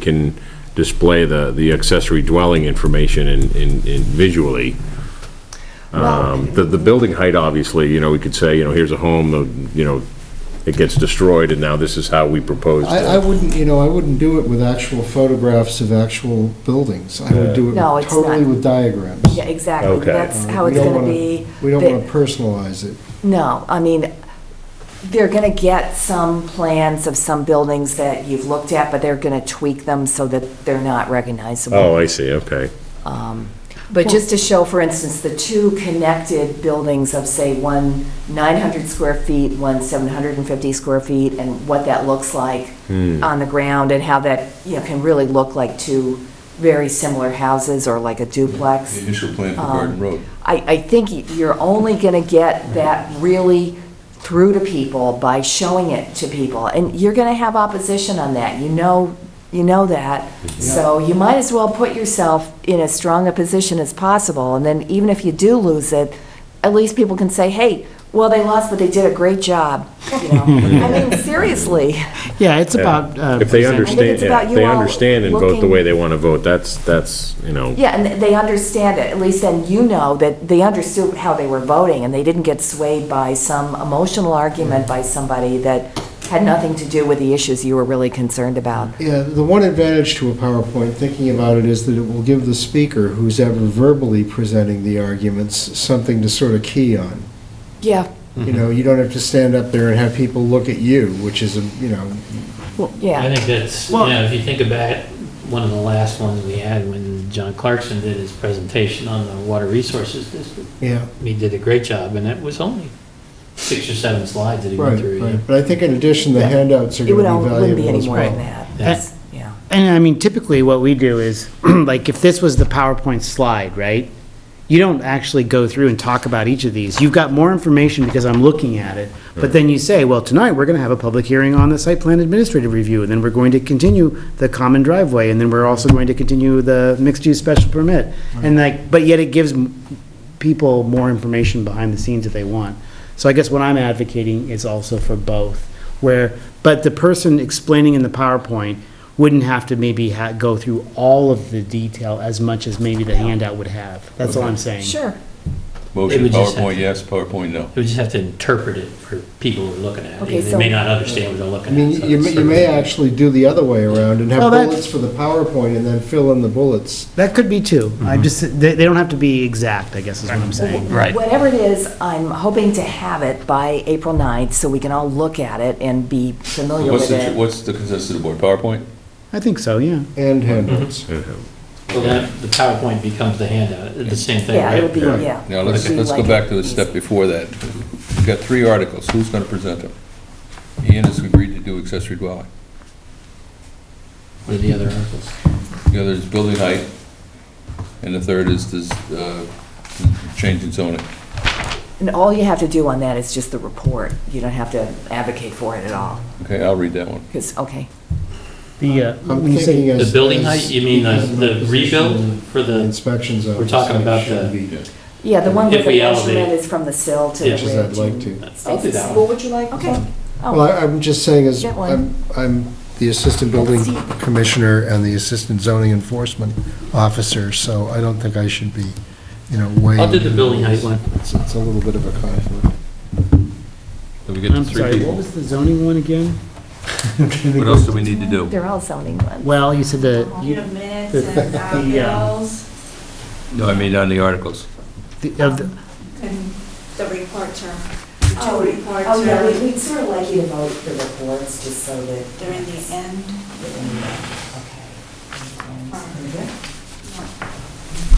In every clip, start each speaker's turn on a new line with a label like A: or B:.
A: can display the, the accessory dwelling information in, in in visually. Um, The, the building height, obviously, you know, we could say, you know, here's a home, the- you know, it gets destroyed, and now this is how we propose to...
B: I, I wouldn't, you know, I wouldn't do it with actual photographs of actual buildings. I would do it
C: No, it's
B: totally
C: not.
B: with diagrams.
C: Yeah, exactly.
A: Okay.
C: That's
B: Uh,
C: how
B: we
C: it's
B: don't
C: going to
B: wanna-
C: be.
B: We don't
C: They-
B: want to personalize it.
C: No, I mean, they're going to get some plans of some buildings that you've looked at, but they're going to tweak them so that they're not
A: Oh,
C: recognizable.
A: I see, okay.
C: Um, But just to show, for instance, the two connected buildings of, say, one 900 square feet, one 750 square feet, and what that looks like
A: Hmm.
C: on the ground, and how that, you know, can really look like two very similar houses, or like a duplex.
D: The initial plan for Garden
C: Um,
D: Road.
C: I, I think y- you're only going to get that really through to people by showing it to people. And you're going to have opposition on that. You know, you know that. So you might as well put yourself in as strong a position as possible. And then even if you do lose it, at least people can say, hey, well, they lost, but they did a great job. You know, I mean, seriously.
E: Yeah, it's about. uh,
A: If they
E: presenting-
A: understand,
C: about
A: if
C: you
A: they
C: all
A: understand and vote the
C: looking-
A: way they want to vote, that's, that's, you know,
C: Yeah, and they understand it, at least then you know that they understood how they were voting, and they didn't get swayed by some emotional argument by somebody that had nothing to do with the issues you were really concerned about.
B: Yeah, the one advantage to a PowerPoint, thinking about it, is that it will give the speaker, who's ever verbally presenting the arguments, something to sort of key on.
C: Yeah,
B: You know, you don't have to stand up there and have people look at you, which is, a you know,
C: yeah.
F: I think that's, you
E: Well-
F: know, if you think about one of the last ones we had when John Clarkson did his presentation on the Water Resources District,
B: yeah.
F: he did a great job, and it was only six or seven slides that he went
B: Right,
F: through.
B: right. But I think in addition, the handouts are
C: It
B: going
C: would,
B: to
C: all-
B: be
C: wouldn't be
B: valuable
C: any
B: as
C: more than
B: well.
C: that.
F: Yeah.
C: That's- Yeah.
E: And I mean, typically what we do is, like, if this was the PowerPoint slide, right? You don't actually go through and talk about each of these. You've got more information because I'm looking at it. But then you say, well, tonight, we're going to have a public hearing on the site plan administrative review, and then we're going to continue the common driveway, and then we're also going to continue the mixed-use special permit. And like, but yet it gives m- people more information behind the scenes if they want. So I guess what I'm advocating is also for both, where, but the person explaining in the PowerPoint wouldn't have to maybe ha- go through all of the detail as much as maybe the handout would have. That's all I'm saying.
C: Sure.
D: Motion,
F: would just have-
D: PowerPoint, yes, PowerPoint, no.
F: We just have to interpret it for people who are looking at
C: Okay,
F: it. They may
C: so-
F: not understand what they're
B: I
F: looking at.
B: mean,
F: so
B: you may,
F: it's
B: you may
F: sort of-
B: actually do the other way around and have
E: Well, that-
B: bullets for the PowerPoint and then fill in the bullets.
E: That could be too. I just, they, they don't have to be exact, I guess is what I'm saying.
F: Right.
C: Whatever it is, I'm hoping to have it by April 9th, so we can all look at it and be familiar
D: What's
C: with
D: the,
C: it.
D: what's the consensus of the board? PowerPoint?
E: I think so, yeah.
B: And handouts.
F: Mm-hmm. Well, then the PowerPoint becomes the handout, the same thing,
C: Yeah,
F: right?
C: it'll be, yeah.
D: Now, let's,
C: It'll be
D: let's go
C: like
D: back
C: it.
D: to the step before that. We've got three articles. Who's going to present them? Ian has agreed to do accessory dwelling.
F: What are the other articles?
D: The other is building height, and the third is this, uh, change in zoning.
C: And all you have to do on that is just the report. You don't have to advocate for it at all,
D: Okay, I'll read that one.
C: because, okay.
E: The, uh,
B: I'm
E: when you say-
B: thinking as-
F: The building
B: as
F: height, you mean the the rebuild for
B: the
F: the,
B: Inspection zone.
F: We're talking about
B: should
F: the-
B: be-
C: Yeah, the one
F: If
C: with the
F: we elevate
C: measurement
F: it.
C: is from the sill to the
F: Yeah.
C: ridge.
B: Which is I'd like
C: and-
B: to.
F: I'll do that
C: What
F: one.
C: would you like? Okay.
B: Well,
C: Oh,
B: I- I'm just saying as,
C: That one.
B: I'm, I'm the assistant building commissioner and the assistant zoning enforcement officer, so I don't think I should be, you know, weighing.
F: I'll do the building height one.
B: It's it's a little bit of a conflict.
D: Did we get the
E: I'm
D: three
E: sorry, what
D: people?
E: was the zoning one again?
D: What else do we need to do?
C: Oh, they're all zoning ones.
E: Well, you said the,
G: All
E: you-
G: your minutes and our
E: The, uh,
G: bills
D: No, I mean, on the articles.
E: the- of the-
G: and the report term, the
C: Oh,
G: two report
C: Oh, yeah, we-
G: term,
C: we'd sort of like you to vote the reports, just so that.
G: they're in the end.
C: Okay.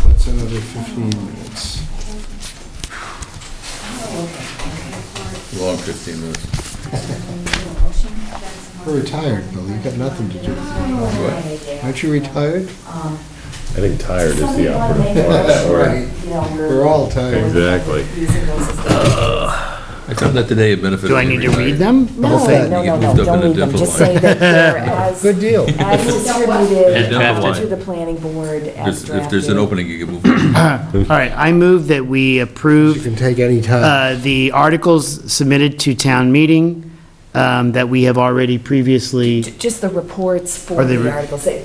B: That's another 15 minutes.
D: Long 15 minutes.
B: You're retired, Bill, you've got nothing to do. Aren't you retired?
A: I think tired is the operative
C: Somebody wanna
A: word.
C: Um, make a motion, you know,
B: We're all tired.
A: Exactly.
C: Using those as the-
D: I found that today a benefit.
E: do I need to read them?
C: No,
B: whole thing.
C: Oh, no,
D: You
C: no,
D: get
C: no,
D: moved up
C: don't
D: in a
C: need them,
D: different
C: just
D: line.
C: say that they're as,
B: Good deal.
C: as
D: Yeah,
C: distributed to
D: different line.
C: the planning board, as
D: If if there's an
C: drafted.
D: opening, you can move on.
E: All right, I move that we
B: You
E: approve
B: can take any time.
E: uh, the articles submitted to town meeting um, that we have already previously
C: Just the reports for
E: Are they
C: the
E: re-
C: articles, They-